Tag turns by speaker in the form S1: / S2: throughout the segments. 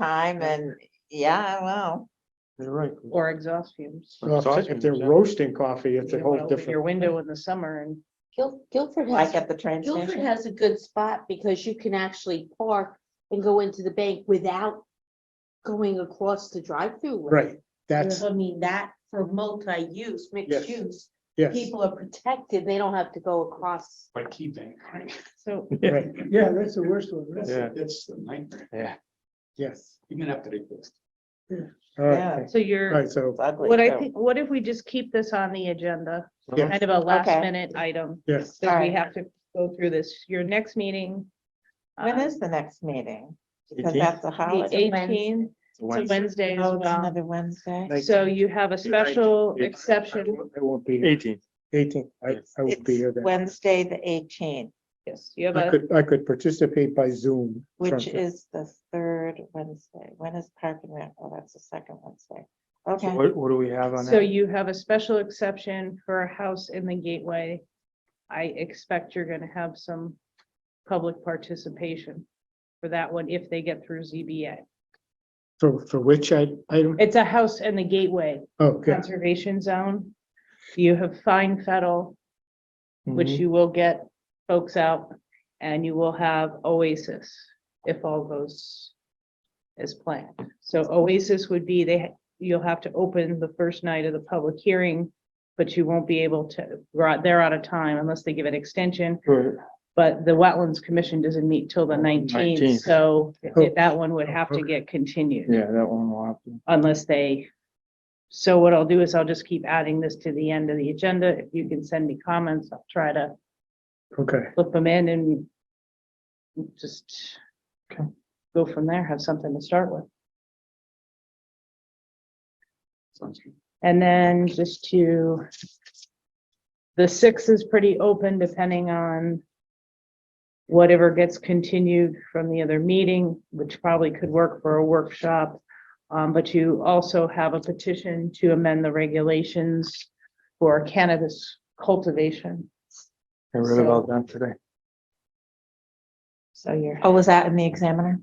S1: time and, yeah, well,
S2: You're right.
S3: or exhaust fumes.
S2: Well, if they're- If
S4: Exhaust
S2: they're
S4: fumes, yeah.
S2: roasting coffee, it's
S3: You
S2: a
S3: don't
S2: whole
S3: wanna open Your
S2: different.
S3: window in the summer and
S5: Guil- Guilford
S1: like
S5: has,
S1: at the train
S5: Guilford
S1: station.
S5: has a good spot because you can actually park and go into the bank without going across the drive-through. lane.
S2: Right, that's,
S5: So I mean, that for multi-use,
S2: Yes.
S5: mixed use,
S2: yes,
S5: people are protected. They don't have to go across.
S4: by keeping, right?
S3: so
S2: right,
S6: Yeah, that's the worst one.
S4: That's,
S2: Yeah.
S4: that's a nightmare,
S6: Yeah.
S2: yes.
S4: even after they fixed.
S2: All right,
S3: so
S2: all
S3: you're,
S2: right, so,
S1: It's ugly,
S3: what I
S1: so-
S3: think, what if we just keep this on the agenda?
S2: Yeah.
S3: Kind of a last
S1: Okay.
S3: minute item,
S2: yes,
S3: because we
S1: Alright.
S3: have to go through this, your next meeting.
S1: When
S3: um,
S1: is the next meeting? Because
S6: 18th?
S1: that's a
S3: The
S1: holiday.
S3: eighteenth, it's a Wednesday as
S1: Oh, it's
S3: well,
S1: another Wednesday.
S3: so you have a special exception,
S2: it won't be
S6: Eighteen.
S2: eighteen, I, I will be here
S1: It's
S2: then.
S1: Wednesday, the eighteenth,
S3: yes, you have
S2: I
S3: a,
S2: could, I could participate by Zoom. from-
S1: which is the third Wednesday. When is Park and Rec? Oh, that's the second Wednesday. Okay,
S6: What, what do we have on
S3: so
S6: that?
S3: you have a special exception for a house in the gateway. I expect you're gonna have some public participation for that one if they get through ZBA.
S2: For, for which I, I don't, oh,
S3: It's a house in the gateway
S2: okay.
S3: conservation zone. You have fine fettle, which
S2: Mhm.
S3: you will get folks out, and you will have Oasis if all goes as planned. So Oasis would be, they, ha- you'll have to open the first night of the public hearing, but you won't be able to, we're out- they're out of time unless they give an extension.
S6: Right.
S3: But the Wetlands Commission doesn't meet till the nineteenth,
S6: 19th.
S3: so
S2: Oh.
S3: that one would have to
S2: Okay.
S3: get continued
S6: Yeah, that one will have to.
S3: unless they. So what I'll do is I'll just keep adding this to the end of the agenda. If you can send me comments, I'll try to
S2: Okay,
S3: flip them in and just go from there, have something to start with.
S4: Sounds good.
S3: And then just to, the six is pretty open depending on whatever gets continued from the other meeting, which probably could work for a workshop. Um, but you also have a petition to amend the regulations for cannabis cultivation.
S6: I read
S3: So-
S6: about that today.
S3: So you're,
S1: oh, was that in the Examiner?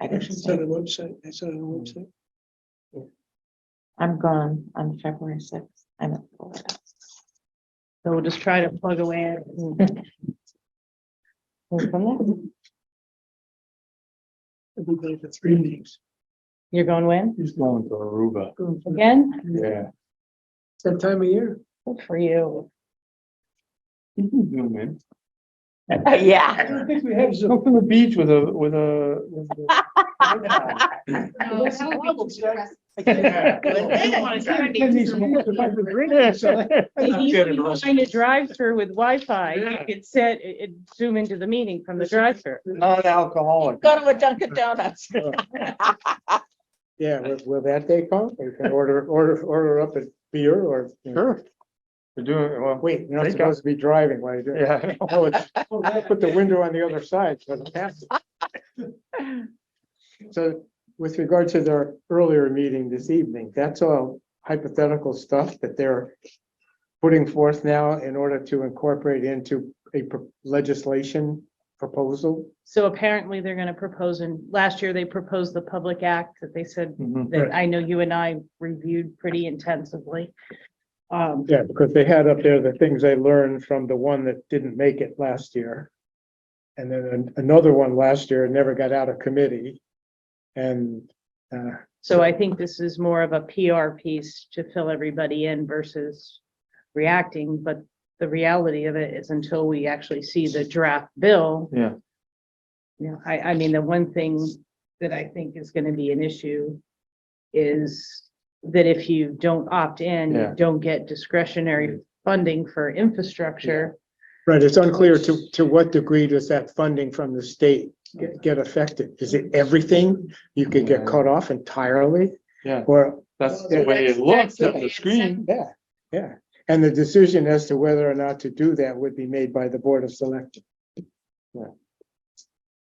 S1: I didn't
S6: It's
S1: see.
S6: the website, it's on the website.
S1: I'm gone on February sixth. I'm in Florida.
S3: so we'll just try to plug away at it and
S1: Who's from there?
S6: It'll be there for three meetings.
S3: You're going when?
S6: He's going to Aruba.
S3: Again?
S6: Yeah. That time of year.
S3: Good for you.
S1: Yeah.
S6: don't think we have. Go to the beach with a, with a. with a-
S3: Find a drive-through with Wi-Fi, you
S6: Yeah.
S3: could set, it- it zoom into the meeting from the drive-through.
S6: Non-alcoholic.
S1: Go to a Dunkin' Donuts.
S2: yeah, will- will that day come? You can order, order, order up a beer or.
S6: Sure. We're doing, well,
S2: Wait, you're not
S6: Take
S2: supposed to be driving while you're doing. it.
S6: yeah.
S2: Oh, it's- I Put the window on the other side, so it passes. So with regard to their earlier meeting this evening, that's all hypothetical stuff that they're putting forth now in order to incorporate into a pro- legislation proposal.
S3: So apparently they're gonna propose, and last year they proposed the Public Act that they said,
S6: Mhm.
S3: that I know you and I reviewed pretty intensively. Um,
S2: Yeah, because they had up there the things they learned from the one that didn't make it last year. And then an- another one last year never got out of committee. And, uh,
S3: so I think this is more of a PR piece to fill everybody in versus reacting, but the reality of it is until we actually see the draft bill,
S6: Yeah,
S3: Yeah, I, I mean, the one thing that I think is gonna be an issue is that if you don't opt in, you
S6: Yeah. Mm-hmm.
S3: don't get discretionary funding for infrastructure.
S2: Right, it's unclear to, to what degree does that funding from the state get- get affected? Is it everything? You could get
S6: Yeah.
S2: cut off entirely?
S6: Yeah.
S2: Or,
S6: that's
S3: Yeah.
S6: the way it looks
S3: That's-
S6: on the
S3: that's-
S6: screen.
S2: yeah, yeah. And the decision as to whether or not to do that would be made by the Board of Selectmen.
S6: Yeah.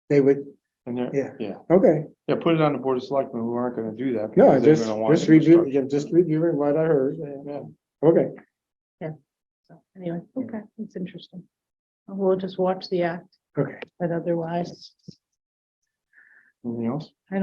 S2: They would,
S6: And they're,
S2: Yeah.
S6: yeah,
S2: okay,
S6: yeah, put it on the board of selectmen, who aren't gonna do that.
S2: no,
S6: because they're
S2: just,
S6: gonna want
S2: just review,
S6: infrastructure.
S2: yeah, just reviewing what I heard. um,
S6: Yeah.
S2: Okay,
S3: So Anyway, okay, it's interesting. We'll just watch the act,
S2: okay.
S3: but otherwise.
S6: Anything else?